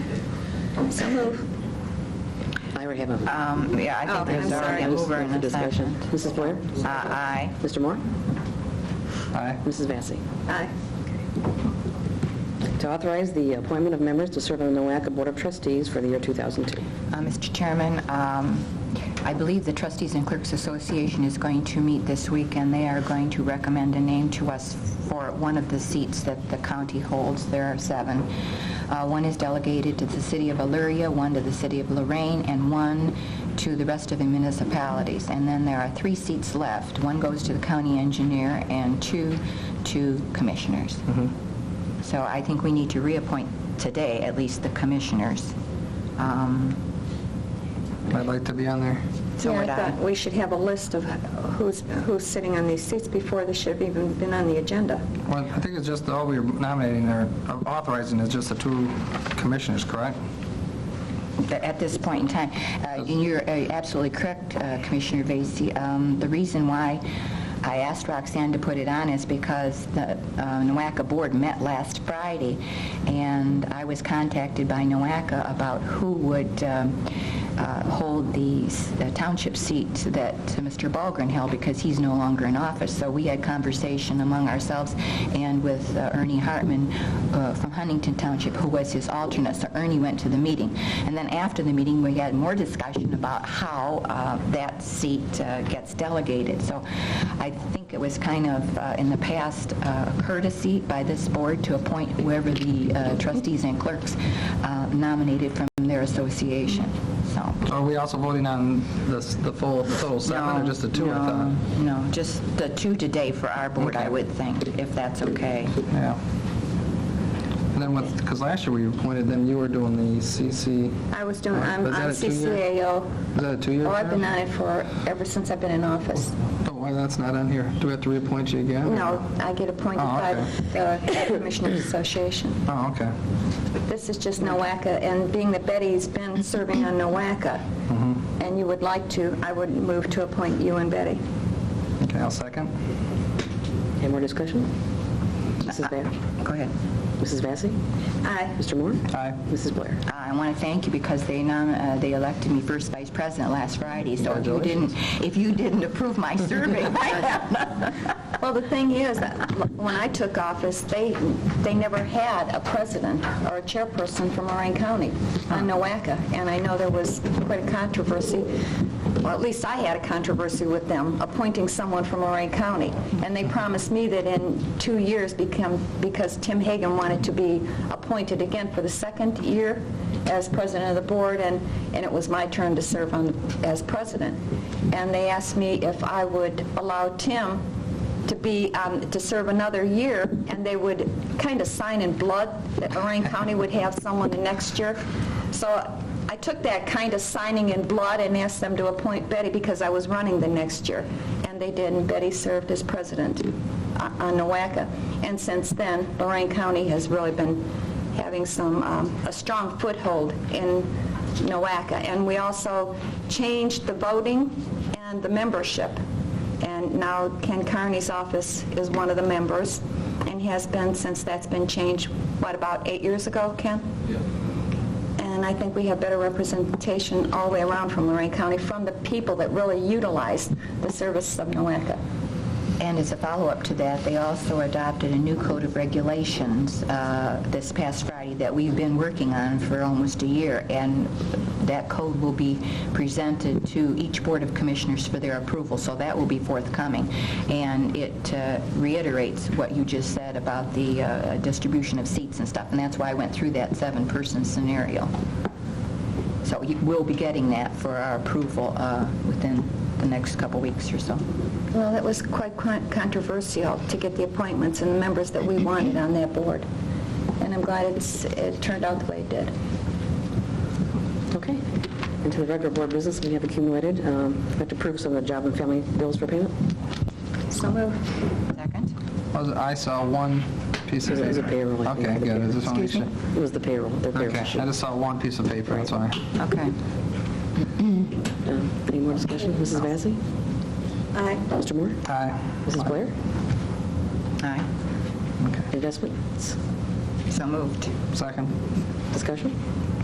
So move. I already have a, Um, Yeah, I Oh, think there's already I'm sorry. a This is mover and for a discussion. second. Mrs. Blair? Uh, Aye. Mr. Moore? Aye. Mrs. Vacy? Aye. To authorize the appointment of members to serve on the NOACA Board of Trustees for the year 2002. Uh, Mr. Chairman, um, I believe the Trustees and Clerks Association is going to meet this week, and they are going to recommend a name to us for one of the seats that the county holds. There are seven. Uh, One is delegated to the city of Illyria, one to the city of Lorraine, and one to the rest of the municipalities. And then there are three seats left. One goes to the county engineer and two to commissioners. So I think we need to reappoint today, at least the commissioners. Um, I'd like to be on there. So would Yeah, I I. thought we should have a list of who's, who's sitting on these seats before they should have even been on the agenda. Well, I think it's just, all we're nominating or authorizing is just the two commissioners, correct? th- at this point in time. Uh, And you're uh, absolutely correct, uh, Commissioner Vacy. Um, The reason why I asked Roxanne to put it on is because the uh, NOACA board met last Friday, and I was contacted by NOACA about who would um, uh, hold the s- the township seat that Mr. Balgren held, because he's no longer in office. So we had conversation among ourselves and with uh, Ernie Hartman uh, from Huntington Township, who was his alternate. So Ernie went to the meeting. And then after the meeting, we had more discussion about how uh, that seat uh, gets delegated. So I think it was kind of, uh, in the past, uh, courtesy by this board to appoint whoever the uh, trustees and clerks uh, nominated from their association, so. So Are we also voting on this, the full, the total seven or just the two? I thought? No, no, just the two today for our board, I would think, if that's okay. Yeah. And then with, because last year we appointed them, you were doing the CC, I was doing, I'm Was that on a two-year? CCAO. is that a two-year Oh, term? I've been on it for, ever since I've been in office. Oh, why that's not on here? Do we have to reappoint you again? No, I get appointed Oh, by the Commissioners Association. Oh, okay. This is just NOACA, and being that Betty's been serving on NOACA, Mm-hmm. and you would like to, I would move to appoint you and Betty. Okay, I'll second. Any more discussion? Mrs. Blair? Go ahead. Mrs. Vacy? Aye. Mr. Moore? Aye. Mrs. Blair? I want to thank you because they nom- uh, they elected me first vice president last Friday, so if you didn't, if you didn't approve my serving, Well, the thing is, that when I took office, they, they never had a president or a chairperson from Lorraine County on NOACA, and I know there was quite a controversy, well, at least I had a controversy with them, appointing someone from Lorraine County, and they promised me that in two years become, because Tim Hagan wanted to be appointed again for the second year as president of the board, and, and it was my turn to serve on, as president. And they asked me if I would allow Tim to be, um, to serve another year, and they would kind of sign in blood that Lorraine County would have someone the next year. So I took that kind of signing in blood and asked them to appoint Betty because I was running the next year, and they did, and Betty served as president uh, on NOACA. And since then, Lorraine County has really been having some, um, a strong foothold in NOACA. And we also changed the voting and the membership. And now Ken Carney's office is one of the members and has been since that's been changed, what, about eight years ago, Ken? Yeah. And I think we have better representation all the way around from Lorraine County, from the people that really utilize the service of NOACA. And as a follow-up to that, they also adopted a new code of regulations uh, this past Friday that we've been working on for almost a year, and that code will be presented to each Board of Commissioners for their approval, so that will be forthcoming. And it uh, reiterates what you just said about the uh, distribution of seats and stuff, and that's why I went through that seven-person scenario. So you- we'll be getting that for our approval uh, within the next couple weeks or so. Well, it was quite con- controversial to get the appointments and the members that we wanted on that board. And I'm glad it's, it turned out the way it did. Okay. And to the regular board business we have accumulated, um, we have to approve some of the job and family bills for payment. So moved. Second? Was it- I saw one piece of It paper. was a payroll, I think. Okay, good. I just wanted to Excuse me? sh- It was the payroll, their Okay, payroll sheet. I just saw one piece of paper, that's why. Okay. Um, Any more discussion? Mrs. Vacy? Aye. Mr. Moore? Aye. Mrs. Blair? Aye. Okay, Investments? So moved. second. Discussion?